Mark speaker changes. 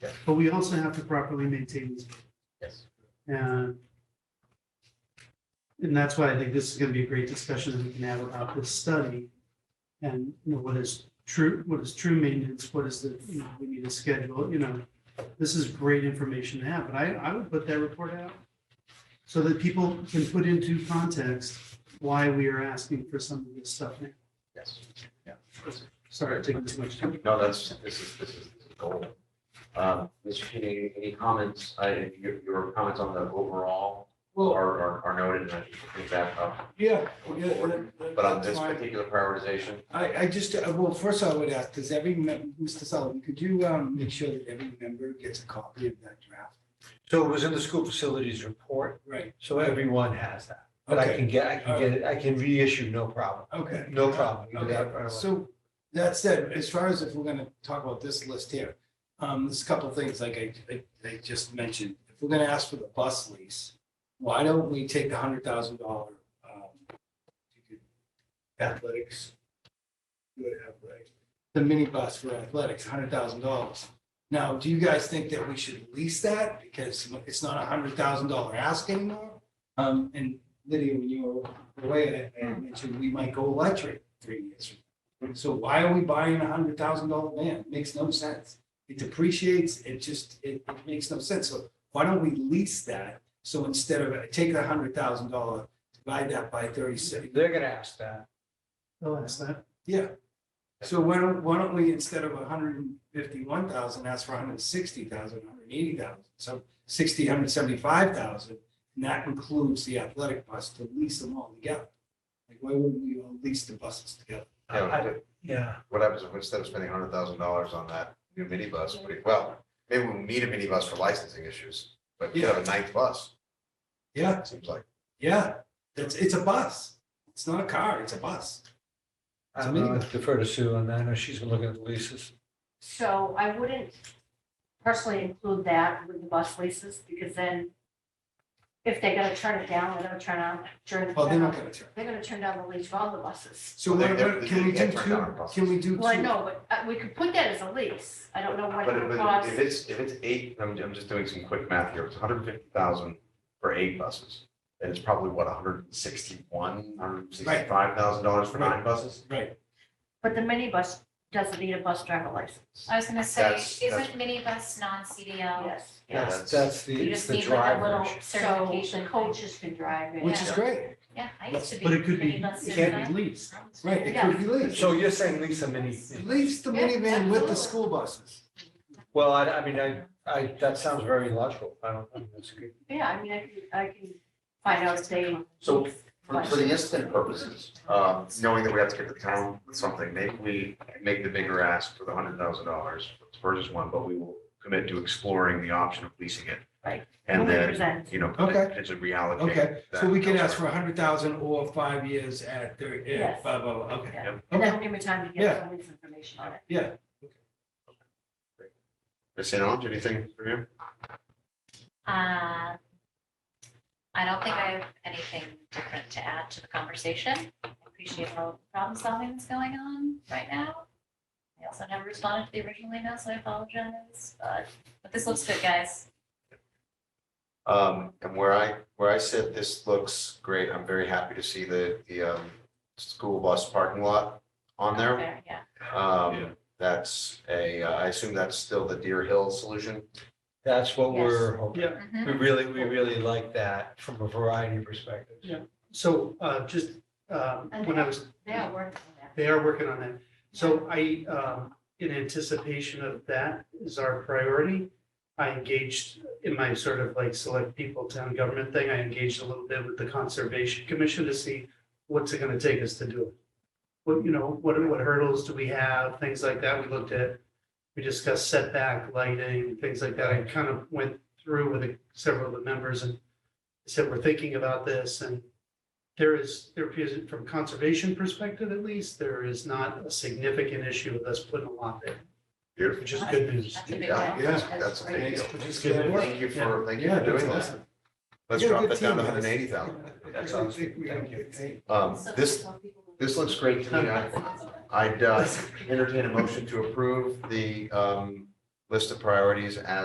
Speaker 1: Yes.
Speaker 2: But we also have to properly maintain these,
Speaker 1: Yes.
Speaker 2: and and that's why I think this is gonna be a great discussion that we can have about this study. And you know, what is true, what is true maintenance, what is the, you know, we need to schedule, you know, this is great information to have, but I, I would put that report out so that people can put into context why we are asking for some of this stuff now.
Speaker 1: Yes.
Speaker 2: Sorry, I'm taking too much time.
Speaker 1: No, that's, this is, this is this is gold. Um, Mr. Sheeney, any comments, I, your, your comments on the overall
Speaker 3: Well-
Speaker 1: are, are- are noted and I think we'll bring that up.
Speaker 3: Yeah,
Speaker 1: going
Speaker 3: yeah,
Speaker 1: forward.
Speaker 3: that-
Speaker 1: But on
Speaker 3: that's
Speaker 1: this
Speaker 3: fine.
Speaker 1: particular prioritization,
Speaker 3: I, I just, uh, well, first I would ask, does every, mem- Mr. Sullivan, could you um, make sure that every member gets a copy of that draft?
Speaker 4: So it was in the school facilities report,
Speaker 3: Right.
Speaker 4: so everyone has that. But I
Speaker 3: Okay,
Speaker 4: can get, I can get it, I can reissue, no problem,
Speaker 3: okay.
Speaker 4: no problem. You can do that
Speaker 3: Okay,
Speaker 4: right away.
Speaker 3: so that said, as far as if we're gonna talk about this list here, um, there's a couple of things like I, I, I just mentioned. If we're gonna ask for the bus lease, why don't we take the hundred thousand dollar, um, athletics? do it athletics, The minibus for athletics, hundred thousand dollars. Now, do you guys think that we should lease that because it's not a hundred thousand dollar ask anymore? Um, and Lydia, when you were away, I I mentioned we might go electric three years. from now. So why are we buying a hundred thousand dollar van? Makes no sense. It depreciates, it just, it it makes no sense. So why don't we lease that? So instead of taking a hundred thousand dollar, divide that by thirty six.
Speaker 4: They're gonna ask that.
Speaker 2: I'll ask that.
Speaker 3: Yeah. So why don't, why don't we, instead of hundred and fifty-one thousand, ask for 160,000, 180,000, so sixty, hundred and seventy-five thousand. And that includes the athletic bus to lease them all together. Like, why wouldn't we all lease the buses together?
Speaker 1: you know,
Speaker 4: I- Yeah.
Speaker 1: what happens if instead of spending hundred thousand dollars on that new minibus, we- well, maybe we'll need a minibus for licensing issues, but you have a ninth bus,
Speaker 3: Yeah,
Speaker 1: it seems like.
Speaker 3: Yeah, it's, it's a bus. It's not a car, it's a bus.
Speaker 4: I don't know, I defer to Sue on that, I know she's been looking at the leases.
Speaker 5: So I wouldn't personally include that with the bus leases, because then if they're gonna turn it down, they're gonna turn on, turn,
Speaker 3: Well, they're not gonna turn.
Speaker 5: they're gonna turn down the lease for all the buses.
Speaker 3: So
Speaker 1: Well,
Speaker 3: what,
Speaker 1: they- they-
Speaker 3: what- can we
Speaker 1: they
Speaker 3: do
Speaker 1: can't turn down a
Speaker 3: two,
Speaker 1: bus.
Speaker 3: can we do two?
Speaker 5: Well, I know, but uh, we could put that as a lease, I don't know what
Speaker 1: But
Speaker 5: it would
Speaker 1: but
Speaker 5: cost.
Speaker 1: if it's, if it's eight, I'm, I'm just doing some quick math here, it's hundred and fifty thousand for eight buses. And it's probably what, hundred and sixty-one, hundred and sixty-five thousand dollars for nine buses?
Speaker 3: Right,
Speaker 5: But the minibus doesn't need a bus driver license.
Speaker 6: I was gonna say,
Speaker 1: That's- that's-
Speaker 6: isn't minibus non-CDL?
Speaker 5: Yes,
Speaker 1: Yeah,
Speaker 5: yes.
Speaker 4: That's, that's the,
Speaker 6: You
Speaker 4: it's
Speaker 6: just
Speaker 4: the
Speaker 6: need like a
Speaker 4: driver.
Speaker 6: little
Speaker 5: So
Speaker 6: certification.
Speaker 5: the coaches can drive it.
Speaker 3: which is
Speaker 6: Yeah.
Speaker 3: great,
Speaker 6: Yeah, I used to be.
Speaker 2: But it could be,
Speaker 6: minibus
Speaker 2: it
Speaker 6: certified.
Speaker 2: can't be leased.
Speaker 3: right, it
Speaker 5: Yeah.
Speaker 3: could be leased.
Speaker 4: So you're saying lease a mini?
Speaker 3: Lease the
Speaker 6: Yeah,
Speaker 3: minivan with the
Speaker 6: absolutely.
Speaker 3: school buses.
Speaker 4: Well, I, I mean, I, I, that sounds very logical. I don't, I mean, that's good.
Speaker 5: Yeah, I mean, I can, I can find out if they.
Speaker 1: So for, for the instant purposes, um, knowing that we have to get the town with something, maybe we make the bigger ask for the hundred thousand dollars to purchase one, but we will commit to exploring the option of leasing it.
Speaker 5: Right.
Speaker 1: And then,
Speaker 5: Represent.
Speaker 1: you know,
Speaker 3: Okay.
Speaker 1: potentially reallocate.
Speaker 3: Okay, So
Speaker 1: that
Speaker 3: we can ask for
Speaker 1: elsewhere.
Speaker 3: a hundred thousand or five years at thirty,
Speaker 5: Yes.
Speaker 3: at blah, blah, blah, okay.
Speaker 5: Yeah.
Speaker 1: Yep.
Speaker 5: And that'll give me time to get
Speaker 3: Yeah.
Speaker 5: some lease information on it.
Speaker 3: Yeah,
Speaker 1: Ms. Allen, anything for you?
Speaker 6: Uh, I don't think I have anything different to add to the conversation. I Appreciate all the problem solving that's going on right now. I also never responded to the original email, so I apologize, but, but this looks good, guys.
Speaker 1: Um, and where I, where I sit, this looks great. I'm very happy to see the, the, um, school bus parking lot on there.
Speaker 6: Fair, Yeah,
Speaker 1: Um, that's a, uh, I assume that's still the Deer Hill solution.
Speaker 4: That's what
Speaker 5: Yes.
Speaker 4: we're hoping.
Speaker 2: Yeah.
Speaker 6: Mhm.
Speaker 4: We really, we really like that from a variety of perspectives.
Speaker 2: Yeah. So uh, just, um, when I was,
Speaker 5: They are working on that.
Speaker 2: they are working on that. So I, um, in anticipation of that is our priority. I engaged in my sort of like select people town government thing. I engaged a little bit with the Conservation Commission to see what's it going to take us to do it. What, you know, what, what hurdles do we have, things like that. We looked at, we discussed setback, lighting, things like that. I kind of went through with the- several of the members and said, we're thinking about this and there is, there appears, from conservation perspective at least, there is not a significant issue with us putting a lot there,
Speaker 1: Beautiful.
Speaker 2: which is good news.
Speaker 6: That's a big
Speaker 1: Yeah,
Speaker 6: deal.
Speaker 3: yeah,
Speaker 1: that's a
Speaker 6: great.
Speaker 1: big
Speaker 3: thanks
Speaker 1: deal.
Speaker 3: for just
Speaker 2: Good.
Speaker 3: that work.
Speaker 1: Thank you for, thank you
Speaker 3: Yeah,
Speaker 1: for
Speaker 3: that's
Speaker 1: doing that.
Speaker 3: awesome.
Speaker 1: Let's
Speaker 3: You're a
Speaker 1: drop
Speaker 3: good
Speaker 1: that down to
Speaker 3: team, guys.
Speaker 1: hundred and eighty thousand. That's
Speaker 3: I
Speaker 1: awesome.
Speaker 3: think we have a
Speaker 4: Thank you.
Speaker 3: good team.
Speaker 1: Um,
Speaker 6: So
Speaker 1: this,
Speaker 6: one people-
Speaker 1: this looks great to me. I- I'd uh, entertain a motion to approve the um, list of priorities as